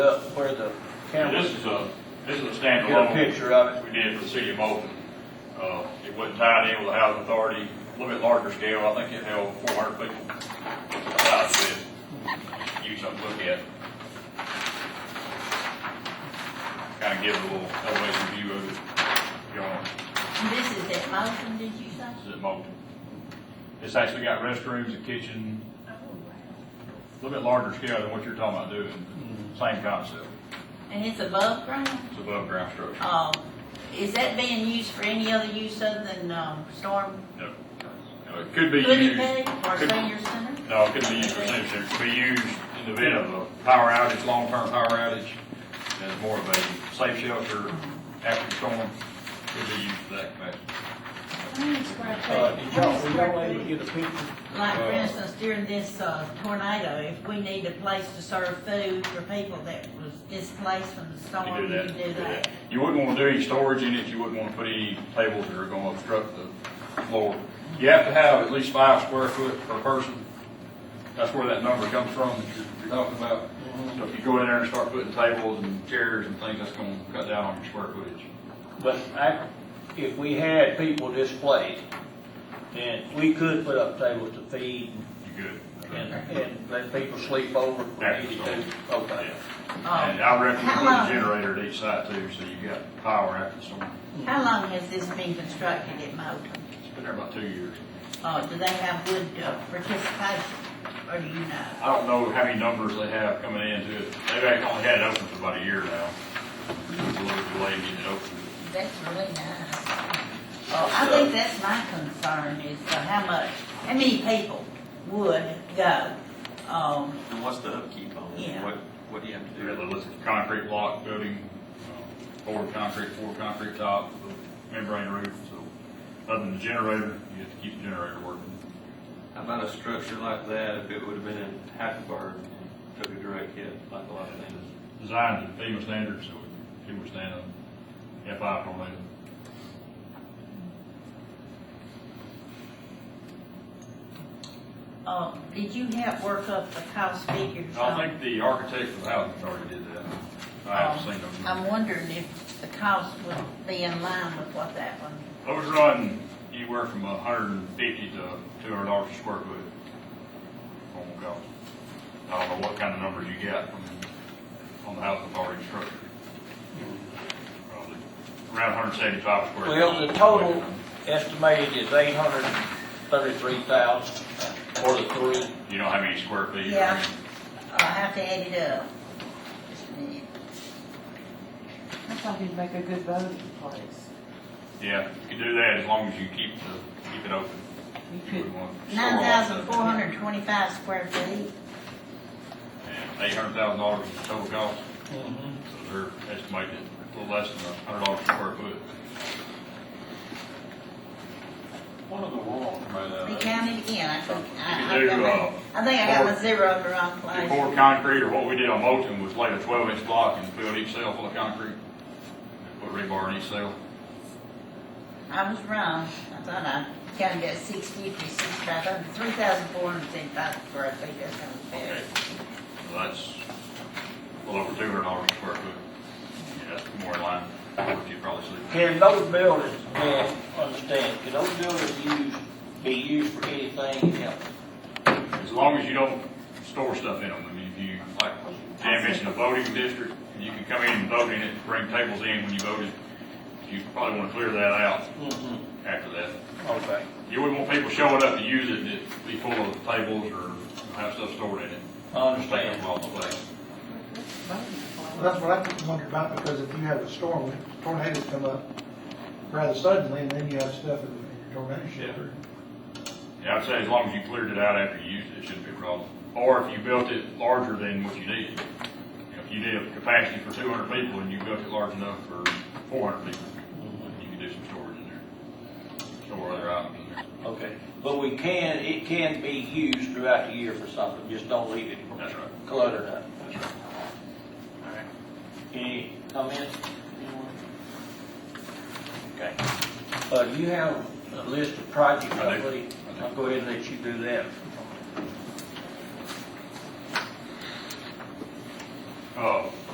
up where the This cameras, is a, this is a get a standalone picture of it. we did for the city of Moulton. Uh, it wasn't tied in with the housing authority, a little bit larger scale, I think it held four hundred people. Uh, but You something to look at. Kind of give a little elevation view of it, if you want, This is at Moulton, did you say? this is at Moulton. It's actually got restrooms, a kitchen, a little bit larger scale than what you're talking about doing, Mm-hmm. same concept, And it's above ground? it's above ground structure. Um, is that being used for any other use other than, um, storm No, No, it could be goodie used, bag or could- senior center? no, it could be used for senior center, It could be used in the event of a power outage, long-term power outage, as more of a safe shelter after the storm, could be used for that capacity. Uh, did y'all, were y'all able to get a picture? Like, for Uh, instance, during this, uh, tornado, if we need a place to serve food for people that was displaced from the You storm, do you that, can you do that. You wouldn't wanna do any storage in it, you wouldn't wanna put any tables that are gonna obstruct the floor. You have to have at least five square foot per person. That's where that number comes from that you're, you're talking about. So if you go in there and start putting tables and chairs and things, that's gonna cut down on your square footage. But I, if we had people displaced, then we could put up tables to feed You good? and, and let people sleep over if we needed to. Okay. Um, And I reckon you How put a long- generator at each side too, so you got power after the storm. How long has this been constructed at Moulton? It's been there about two years. Uh, do they have good uh, participation, or do you know? I don't know how many numbers they have coming into it. They've actually only had it open for about a year now. It's a little delayed getting it open. That's really nice. Oh, I think that's my concern is uh, how much, how many people would go, um, And what's the upkeep on it? Yeah. What, what do you have to They had a do? little concrete block building, uh, poured concrete, poured concrete top, membrane roof, so other than the generator, you have to keep the generator working. How about a structure like that, if it would have been in Hackleburg, took a direct hit, like a lot of things? Designed to FEMA standards, so it can withstand a F5 tornado. uh, did you help work up the cost figures? I on- think the architect for the housing already did that. I haven't seen um, them. I'm wondering if the cost would be in line with what that one, I was running anywhere from a hundred and fifty to two hundred dollars a square foot. Oh my God. I don't know what kind of numbers you get from, on the housing authority structure. Probably around hundred seventy-five square. Well, the foot. total estimated is eight hundred and thirty-three thousand for the three. You don't have any square feet. or Yeah. anything. I'll have to add it up. Just a minute. I thought he'd make a good voting place. Yeah, you can do that as long as you keep the, keep it open. You You could, wouldn't want to store all Nine that thousand four stuff in. hundred and twenty-five square feet, And eight hundred thousand dollars is the total cost. So they're estimated a little less than a hundred dollars a square foot. What in the world? be counted again, I think, I, Uh, You I can do, uh, got my, I think I got my four- zero in the wrong place. Before concrete, or what we did on Moulton, was lay a twelve inch block and filled each cell full of concrete. Put rebar in each cell. I was wrong. I thought I counted at six fifty, six five hundred, three thousand four hundred and seventy-five square feet, that sounds fair. Okay. So that's a little over two hundred dollars a square foot. Yeah, that's more in line with what you probably see. Can those buildings, man, understand, can those buildings used, be used for anything else? As long as you don't store stuff in them. I mean, if you, like, Dan mentioned a voting district, and you can come in and vote in it, bring tables in when you voted. You probably want to clear that out Mm-hmm. after that. Okay. You wouldn't want people showing up to use it, and it be full of tables or have stuff stored in it. I Take up understand. all the place. Well, That's what I wonder about, because if you have a storm, tornadoes come up rather suddenly, and then you have stuff in in your tornado shelter. Yeah, I'd say as long as you cleared it out after you used it, it shouldn't be a problem. Or if you built it larger than what you needed. You know, If you did have capacity for two hundred people and you built it large enough for four hundred people, you could do some storage in there. Store other items in there. Okay, but we can, it can be used throughout the year for something, just don't leave it That's right. cluttered up. That's right. Any comments? Anyone? Okay. Uh, do you have a list of projects, I I do. believe? I'll go ahead and let you do that.